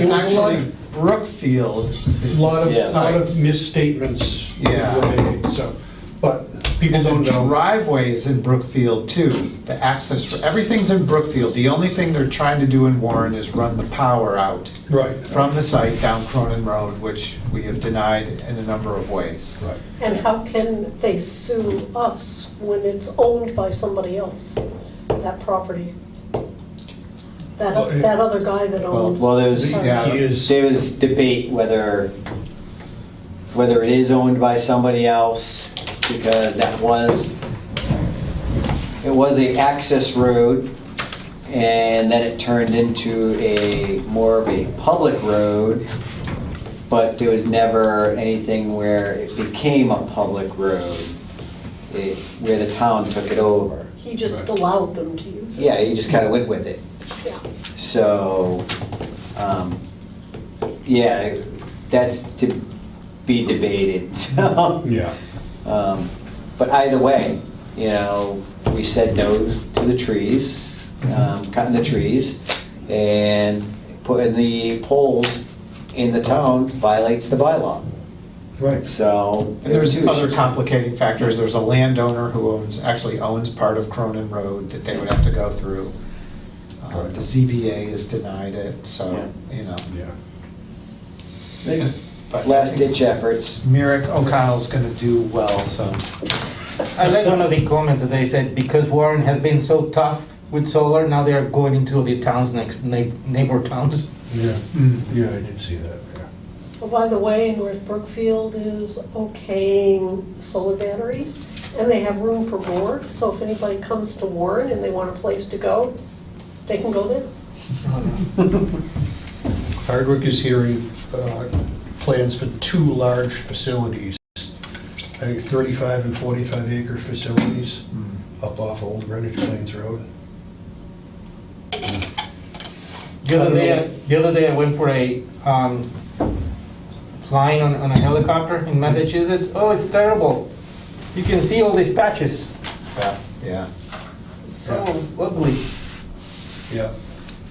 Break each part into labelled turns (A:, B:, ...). A: It's actually Brookfield. is
B: A lot of,
A: the
B: lot of
A: site.
B: misstatements
A: Yeah.
B: were made, so, but people
A: And
B: don't
A: the
B: know.
A: driveway is in Brookfield too, the access, for everything's in Brookfield. The only thing they're trying to do in Warren is run the power out
B: Right.
A: from the site down Cronin Road, which we have denied in a number of ways.
B: Right.
C: And how can they sue us when it's owned by somebody else, that property? That,
B: Well, it-
C: that other guy that owns.
D: Well, there's,
A: Yeah.
B: He is,
D: there was debate whether, whether it is owned by somebody else, because that was, it was a access road, and then it turned into a, more of a public road, but there was never anything where it became a public road, it- where the town took it over.
C: He just allowed them to use it.
D: Yeah, you just kind of went with it.
C: Yeah.
D: So, um, yeah, that's to be debated, so.
B: yeah,
D: Um, But either way, you know, we said no to the trees, um, cutting the trees, and putting the poles in the town violates the bylaw,
B: right.
D: so.
A: And there's
D: there were two
A: other
D: issues.
A: complicating factors. There's a landowner who owns, actually owns part of Cronin Road that they would have to go through. Uh, The ZBA has denied it, so, you know.
B: Yeah.
A: But-
D: Last ditch efforts.
A: Merrick O'Connell's gonna do well, so.
E: I read one of the comments that they said, because Warren has been so tough with solar, now they're going into the towns next, neigh- neighbor towns.
B: Yeah,
A: mm.
B: yeah, I did see that, yeah.
C: Well, Oh, by the way, North Brookfield is okaying solar batteries, and they have room for more, so if anybody comes to Warren and they want a place to go, they can go there.
B: Hardwick is hearing uh, plans for two large facilities, I think 35 and 45 acre facilities up off Old Greenwich Plains Road.
E: The other day, the other day I went for a, um, flying on, on a helicopter in Massachusetts, oh, it's terrible. You can see all these patches,
A: Yeah.
E: it's so ugly.
B: Yeah,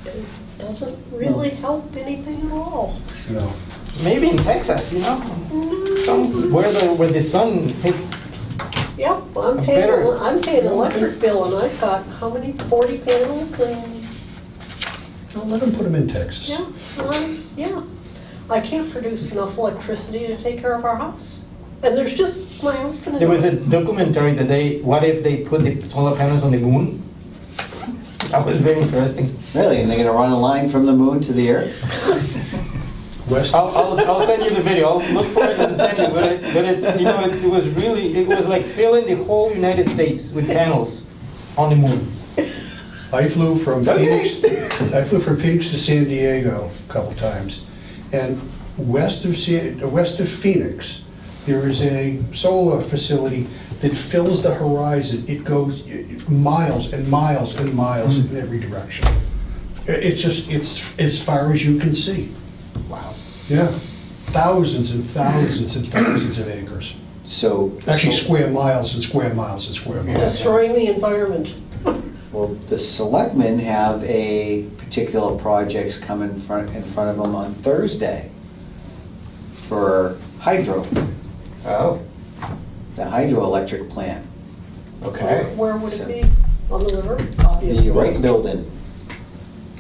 C: It Doesn't really help anything at all.
B: you know,
E: Maybe in Texas, you know, some, where the, where the sun hits,
C: Yeah, well, I'm
E: I'm
C: paying,
E: better.
C: ele- I'm paying electric bill, and I've got, how many, 40 panels, and,
B: Don't let them put them in Texas.
C: yeah, um, yeah. I can't produce enough electricity to take care of our house, and there's just my husband and I.
E: there was a documentary that they, what if they put the solar panels on the moon? That was very interesting.
D: Really, and they're gonna run a line from the moon to the earth?
B: West,
E: I'll, I'll, I'll send you the video, I'll look for it and send you, but it, but it, you know, it, it was really, it was like filling the whole United States with panels on the moon.
B: I flew from Phoenix, I flew from Phoenix to San Diego a couple times. And west of, San- uh, west of Phoenix, there is a solar facility that fills the horizon. It goes uh, miles and miles and miles
D: Hmm.
B: in every direction. I- It's just, it's as far as you can see.
A: Wow.
B: Yeah. Thousands and thousands and thousands of acres.
D: So.
B: Actually,
D: so-
B: square miles and square miles and square miles.
C: Destroying the environment.
D: Well, the selectmen have a particular projects come in front, in front of them on Thursday for hydro,
A: Oh,
D: the hydroelectric plant.
A: okay.
C: Where would it be? On the river, obviously.
D: The Wright Building,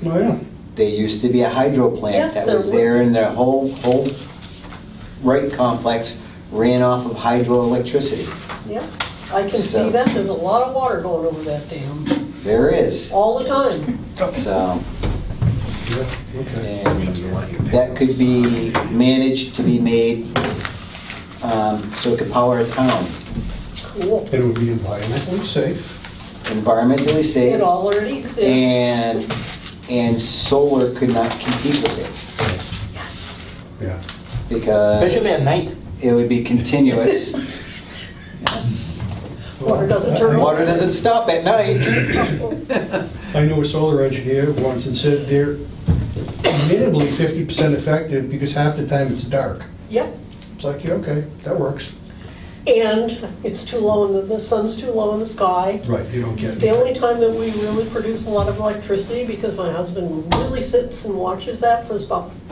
B: Oh, yeah.
D: there used to be a hydro
C: Yes,
D: plant that
C: there
D: was
C: was.
D: there and the whole, whole Wright complex ran off of hydroelectricity.
C: Yeah, I can see
D: So-
C: that, there's a lot of water going over that dam,
D: There is,
C: all the time.
D: so,
B: Yeah, okay.
D: and that could be managed to be made, um, so it could power a town.
C: Cool.
B: It would be environmentally safe.
D: environmentally
C: It
D: safe,
C: already exists.
D: and, and solar could not compete with it,
C: Yes.
B: Yeah.
D: because...
E: Especially at night.
D: It would be continuous.
C: Water doesn't turn on.
D: Water doesn't stop at night.
B: I knew a solar engineer once and said they're minimally 50% effective because half the time it's dark.
C: Yep.
B: It's like, yeah, okay, that works.
C: And it's too low, in the, the sun's too low in the sky.
B: Right, you don't get
C: The only
B: it.
C: time that we really produce a lot of electricity, because my husband really sits and watches that, was about